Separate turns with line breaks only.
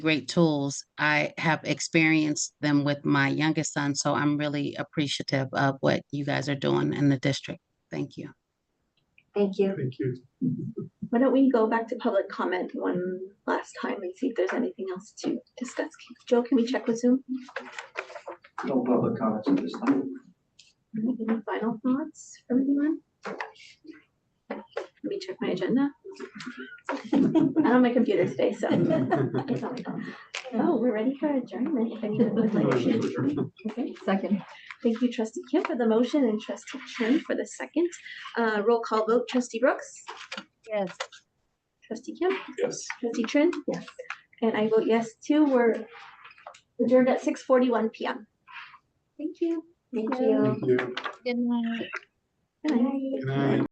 great tools. I have experienced them with my youngest son, so I'm really appreciative of what you guys are doing in the district. Thank you.
Thank you.
Thank you.
Why don't we go back to public comment one last time and see if there's anything else to discuss? Joe, can we check with Zoom?
No public comments at this time.
Any final thoughts from anyone? Let me check my agenda. I'm on my computer today, so. it's on my phone. Oh, we're ready for adjournment. If anyone would like to- Okay,
Second.
Thank you, trustee Kim for the motion and trustee Chen for the second. Uh, roll call vote, trustee Brooks,
Yes.
trustee Kim,
Yes.
trustee Chen. Yes. And I vote yes too. We're adjourned at six forty-one PM. Thank you. Thank
Thank you.
Good night.
Good night.
Good night.